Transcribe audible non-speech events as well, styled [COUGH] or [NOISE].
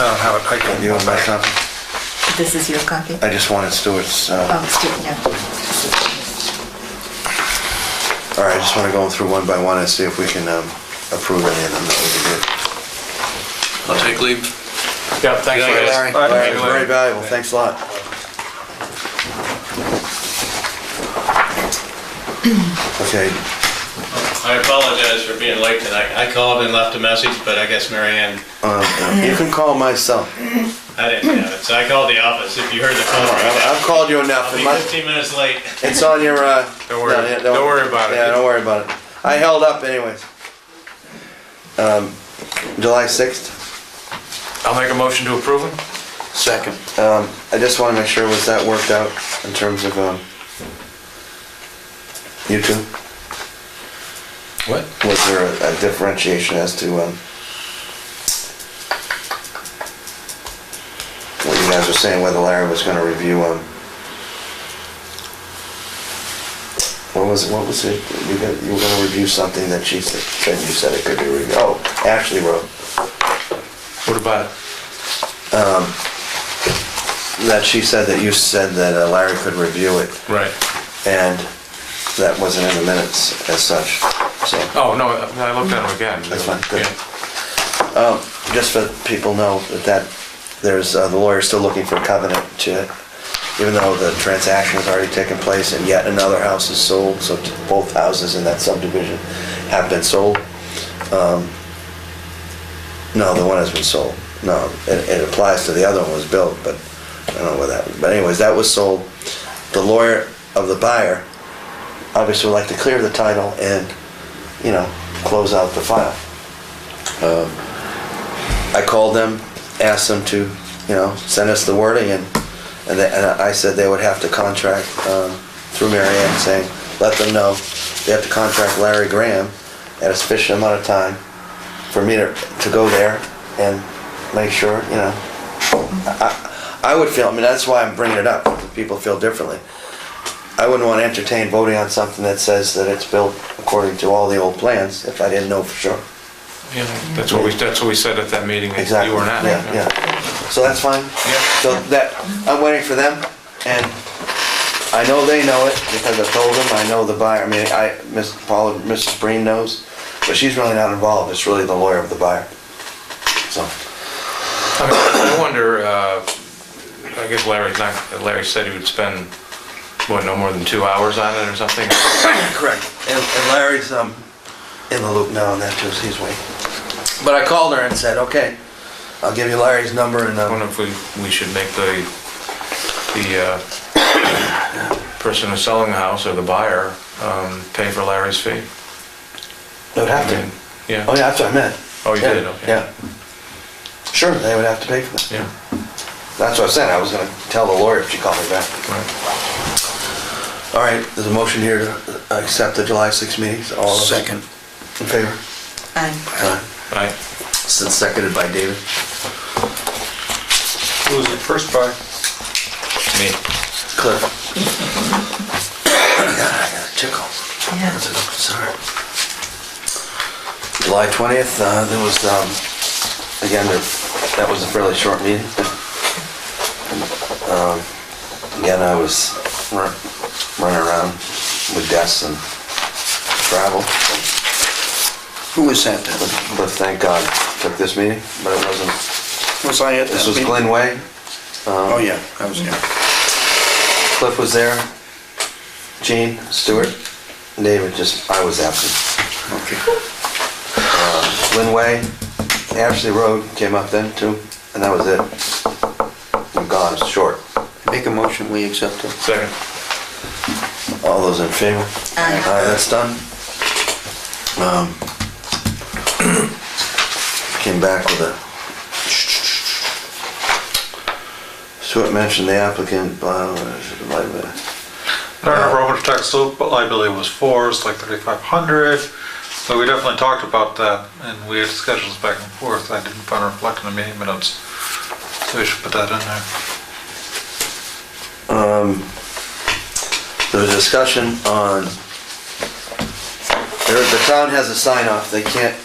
I don't have it, I can. You and myself, This is your copy? I just wanted Stuart's, uh, Oh, Stuart, yeah. all right, I just want to go through one by one and see if we can um, approve any of them that I'll take leave. Yeah, thanks. Yeah, we did. Larry. All right, Larry. it was very valuable, thanks a lot. Okay, I apologize for being late tonight. I called and left a message, but I guess Marianne, um, you can call myself. I didn't have it, so I called the office. If you heard the phone I've I've ring, called you enough. I'll It be must- 15 minutes late. It's on your, uh. Don't worry. no, yeah, Don't worry about it. Yeah, don't worry about it. I held up anyways. Um, July sixth? I'll make a motion to approve it. Second. Um, I just wanna make sure, was that worked out in terms of, um, you two? What? Was there a a differentiation as to, um, what you guys were saying, whether Larry was gonna review, um, what was, what was it, you got, you were gonna review something that she said, said you said it could be reviewed, oh, Ashley wrote, What about it? that she said that you said that uh, Larry could review it, Right. and that wasn't in the minutes as such, so. Oh, no, I I looked at them again. That's fine, good. Yeah. Um, just so that people know that that, there's, uh, the lawyer's still looking for a covenant to, even though the transaction has already taken place and yet another house is sold, so t- both houses in that subdivision have been sold. Um, No, the one has been sold. No, it, it applies to the other one was built, but I don't know where that, but anyways, that was sold. The lawyer of the buyer obviously would like to clear the title and, you know, close out the file. I called them, asked them to, you know, send us the wording, and, and they- and I said they would have to contract, um, through Mary Ann, saying, let them know, they have to contract Larry Graham at a sufficient amount of time for me to, to go there and make sure, you know. I- I, I would feel, I mean, that's why I'm bringing it up, people feel differently. I wouldn't want to entertain voting on something that says that it's built according to all the old plans, if I didn't know for sure. Yeah, That's what we, that's what we said at that meeting, that Exactly. you were not. Yeah, yeah. So that's fine. Yeah. So that, I'm waiting for them, and I know they know it because I told them, I know the buyer, I mean, I, Miss Paula, Mrs. Breen knows, but she's really not involved, it's really the lawyer of the buyer. So, I mean, I wonder, uh, I guess Larry's not, Larry said he would spend, what, no more than two hours on it or something? correct, and and Larry's, um, in the loop now on that too, so he's waiting. But I called her and said, okay, I'll give you Larry's number and, I um, wonder if we, we should make the, the uh, person who's selling the house or the buyer um, pay for Larry's fee. they'd have I mean, to. Oh, Yeah, yeah, that's what I meant. Oh, you Yeah, did, okay. Yeah. Sure, they would have to pay for that. yeah, That's what I said, I was gonna tell the lawyer if she called me back. right. All right, there's a motion here to accept the July 6 meetings. All those Second. In favor? Aye. Aye. Right. Since seconded by David. Who was the first buyer? Me. Cliff. [COUGHS] God, I got a tickle. Yeah. That's a- Sorry. July 20th, uh, there was, um, again, that- that was a fairly short meeting. Um, Again, I was run- running around with desks and travel. Who was that then? But but thank God took this meeting, but it wasn't, Was I at that this was meeting? Glenn Way, Oh, yeah, I was, yeah. Cliff was there, Gene, Stewart, David, just, I was absent. Okay. Glenn Way, Ashley Road came up then too, and that was it. I'm gone, it's short. Make a motion, we accept it. Second. All those in favor? Aye. Aye, that's done. Um, [CLEARS THROAT] Came back with a. Stewart mentioned the applicant, blah, blah, blah, blah. Our Robert tax liability was four, it's like 3,500. So we definitely talked about that and we had schedules back and forth. I didn't find reflect in the meeting minutes. So we should put that in there. There was a discussion on, there- the town has a sign off, they can't